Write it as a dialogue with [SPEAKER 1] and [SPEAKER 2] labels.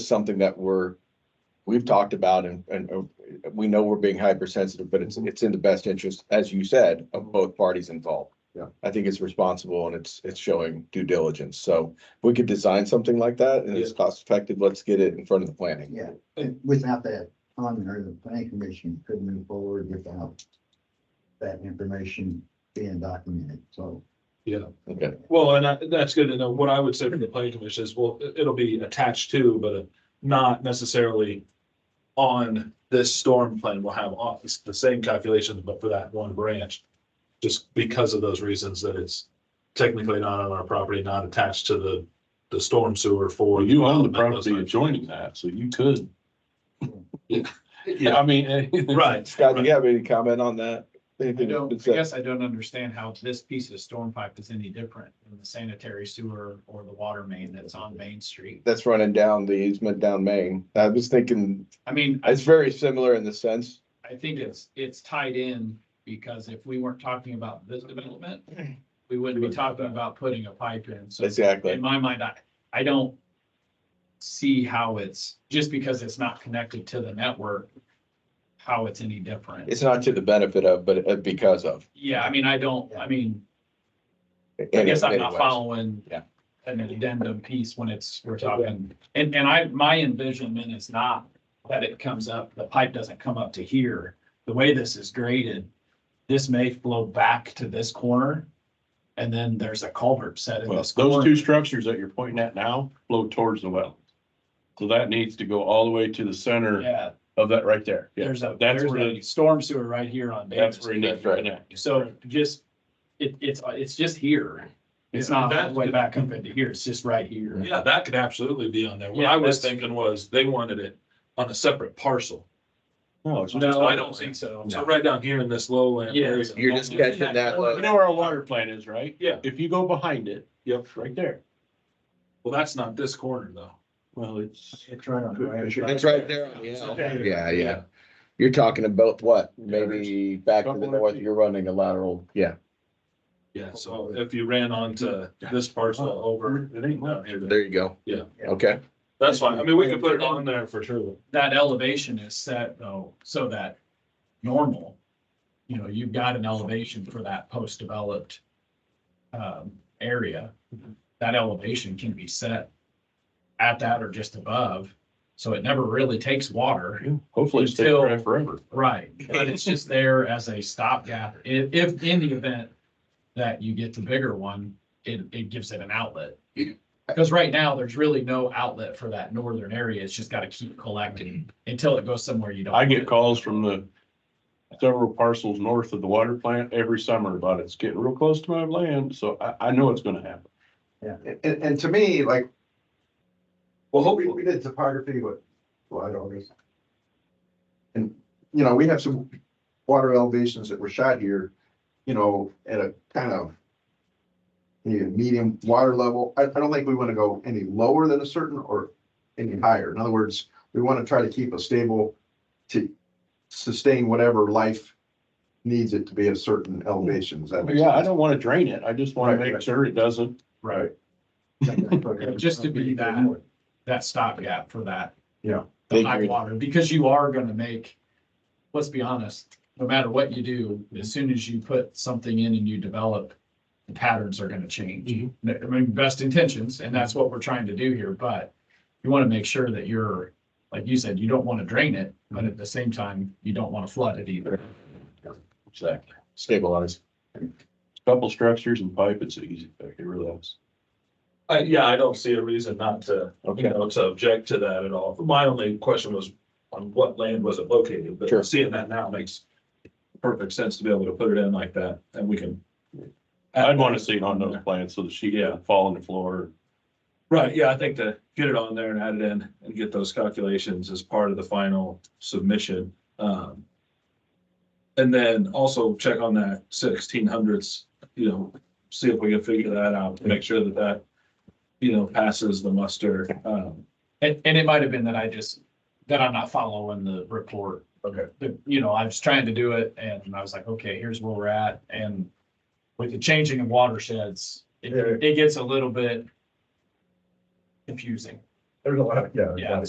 [SPEAKER 1] is something that we're, we've talked about and, and uh, we know we're being hypersensitive, but it's, it's in the best interest, as you said, of both parties involved.
[SPEAKER 2] Yeah.
[SPEAKER 1] I think it's responsible and it's, it's showing due diligence. So if we could design something like that and it's cost effective. Let's get it in front of the planning.
[SPEAKER 3] Yeah, and without that on there, the planning commission could move forward without that information being documented, so.
[SPEAKER 2] Yeah,
[SPEAKER 1] Okay.
[SPEAKER 2] well, and I- that's good to know. What I would say from the planning commission is, well, it- it'll be attached to, but uh, not necessarily on this storm plan. We'll have all- it's the same calculations, but for that one branch. Just because of those reasons that it's technically not on our property, not attached to the, the storm sewer for.
[SPEAKER 4] Well, you own the property adjoining that, so you could.
[SPEAKER 2] Yeah,
[SPEAKER 4] I mean, eh,
[SPEAKER 2] right.
[SPEAKER 1] Scott, do you have any comment on that? Anything that's
[SPEAKER 5] I don't,
[SPEAKER 1] been
[SPEAKER 5] I
[SPEAKER 1] said?
[SPEAKER 5] guess I don't understand how this piece of storm pipe is any different than the sanitary sewer or the water main that's on Main Street.
[SPEAKER 1] That's running down the easement down Main. I was thinking,
[SPEAKER 5] I mean, I,
[SPEAKER 1] it's very similar in the sense.
[SPEAKER 5] I think it's, it's tied in because if we weren't talking about this development, we wouldn't be talking about putting a pipe in. So in
[SPEAKER 1] Exactly.
[SPEAKER 5] my mind, I, I don't see how it's, just because it's not connected to the network, how it's any different.
[SPEAKER 1] It's not to the benefit of, but uh, because of.
[SPEAKER 5] Yeah, I mean, I don't, I mean, I
[SPEAKER 1] in
[SPEAKER 5] guess I'm not
[SPEAKER 1] many ways.
[SPEAKER 5] following
[SPEAKER 1] Yeah.
[SPEAKER 5] an addendum piece when it's, we're talking, and, and I, my envisionment is not that it comes up, the pipe doesn't come up to here. The way this is graded, this may flow back to this corner, and then there's a culvert set in
[SPEAKER 4] well,
[SPEAKER 5] this
[SPEAKER 4] those two
[SPEAKER 5] corner.
[SPEAKER 4] structures that you're pointing at now flow towards the well. So that needs to go all the way to the center
[SPEAKER 5] Yeah,
[SPEAKER 4] of that right there. Yeah,
[SPEAKER 5] there's a,
[SPEAKER 4] That's
[SPEAKER 5] there's
[SPEAKER 4] where,
[SPEAKER 5] a
[SPEAKER 4] the-
[SPEAKER 5] storm sewer right here on
[SPEAKER 4] that's
[SPEAKER 5] Davis.
[SPEAKER 4] where you need to
[SPEAKER 1] That's right.
[SPEAKER 4] connect.
[SPEAKER 5] So just, it, it's, it's just here. It's
[SPEAKER 2] Yeah,
[SPEAKER 5] not all
[SPEAKER 2] that-
[SPEAKER 5] the way back up into here, it's just right here.
[SPEAKER 2] Yeah, that could absolutely be on there. What
[SPEAKER 5] Yeah,
[SPEAKER 2] I was
[SPEAKER 5] that's-
[SPEAKER 2] thinking was they wanted it on a separate parcel.
[SPEAKER 4] No, it's-
[SPEAKER 5] No, I don't
[SPEAKER 2] lowland.
[SPEAKER 5] think so.
[SPEAKER 2] So right down here in this lowland.
[SPEAKER 5] Yeah.
[SPEAKER 2] area.
[SPEAKER 1] You're just catching that
[SPEAKER 4] You
[SPEAKER 1] low.
[SPEAKER 4] know where our water plant is, right?
[SPEAKER 2] Yeah.
[SPEAKER 4] If you go behind it,
[SPEAKER 2] Yep,
[SPEAKER 4] right there.
[SPEAKER 2] well, that's not this corner though.
[SPEAKER 4] Well, it's.
[SPEAKER 3] It's right on.
[SPEAKER 1] It's right there on the hill.
[SPEAKER 5] Okay.
[SPEAKER 1] Yeah, yeah. You're talking about what? Maybe back to the
[SPEAKER 4] Couple of
[SPEAKER 1] north,
[SPEAKER 4] feet.
[SPEAKER 1] you're running a lateral, yeah.
[SPEAKER 2] Oh, Yeah, Oh, so if you ran onto this parcel over.
[SPEAKER 4] It ain't
[SPEAKER 2] down
[SPEAKER 4] much.
[SPEAKER 2] here,
[SPEAKER 1] There you go.
[SPEAKER 2] Yeah.
[SPEAKER 1] Okay.
[SPEAKER 2] That's fine. I mean, we could put it on there for sure.
[SPEAKER 5] that elevation is set though, so that normal, you know, you've got an elevation for that post-developed um, area. That elevation can be set at that or just above, so it never really takes water.
[SPEAKER 4] Yeah, Hopefully it stays
[SPEAKER 5] Until-
[SPEAKER 4] there forever.
[SPEAKER 5] Right, but it's just there as a stopgap. If, if in the event that you get the bigger one, it, it gives it an outlet. Because right now, there's really no outlet for that northern area. It's just gotta keep collecting until it goes somewhere you don't.
[SPEAKER 4] Mm-hmm. I get calls from the several parcels north of the water plant every summer about it's getting real close to my land, so I, I know it's gonna happen.
[SPEAKER 6] And, and, and to me, like,
[SPEAKER 2] Well,
[SPEAKER 6] we,
[SPEAKER 2] hopefully,
[SPEAKER 6] we did topography with, well, I don't know. And, you know, we have some water elevations that were shot here, you know, at a kind of you know, medium water level. I, I don't think we want to go any lower than a certain or any higher. In other words, we want to try to keep a stable to sustain whatever life needs it to be at certain elevations. That makes
[SPEAKER 4] Yeah, I
[SPEAKER 6] sense.
[SPEAKER 4] don't wanna drain it, I just wanna
[SPEAKER 6] Right,
[SPEAKER 4] make
[SPEAKER 6] right.
[SPEAKER 4] sure it doesn't.
[SPEAKER 5] Right, Just to be that. that stopgap for that.
[SPEAKER 6] Yeah.
[SPEAKER 5] The high water, because you are gonna make, let's be honest, no matter what you do, as soon as you put something in and you develop, the patterns are gonna change.
[SPEAKER 2] Mhm.
[SPEAKER 5] I mean, best intentions, and that's what we're trying to do here, but you want to make sure that you're, like you said, you don't want to drain it, but at the same time, you don't want to flood it either.
[SPEAKER 4] Exactly.
[SPEAKER 1] Stabilize.
[SPEAKER 4] Couple structures and pipe, it's easy, it really is.
[SPEAKER 2] I, Uh, yeah, I don't see a reason not to, you
[SPEAKER 1] Okay.
[SPEAKER 2] know, to object to that at all. My only question was on what land was it located?
[SPEAKER 1] Sure.
[SPEAKER 2] But seeing that now makes perfect sense to be able to put it in like that and we can.
[SPEAKER 6] Uh,
[SPEAKER 4] I'd wanna see it on those plants so the sheet
[SPEAKER 2] Yeah.
[SPEAKER 4] doesn't fall on the floor.
[SPEAKER 2] Right, yeah, I think to get it on there and add it in and get those calculations as part of the final submission. Um. And then also check on that sixteen hundreds, you know, see if we can figure that out, make sure that that, you know, passes the muster. Um,
[SPEAKER 5] And, and it might have been that I just, that I'm not following the report.
[SPEAKER 2] Okay.
[SPEAKER 5] But, you know, I was trying to do it and I was like, okay, here's where we're at. And with the changing of watersheds, it, it gets a little bit confusing. There's a lot, yeah. there's a lot
[SPEAKER 6] Yeah,
[SPEAKER 5] of-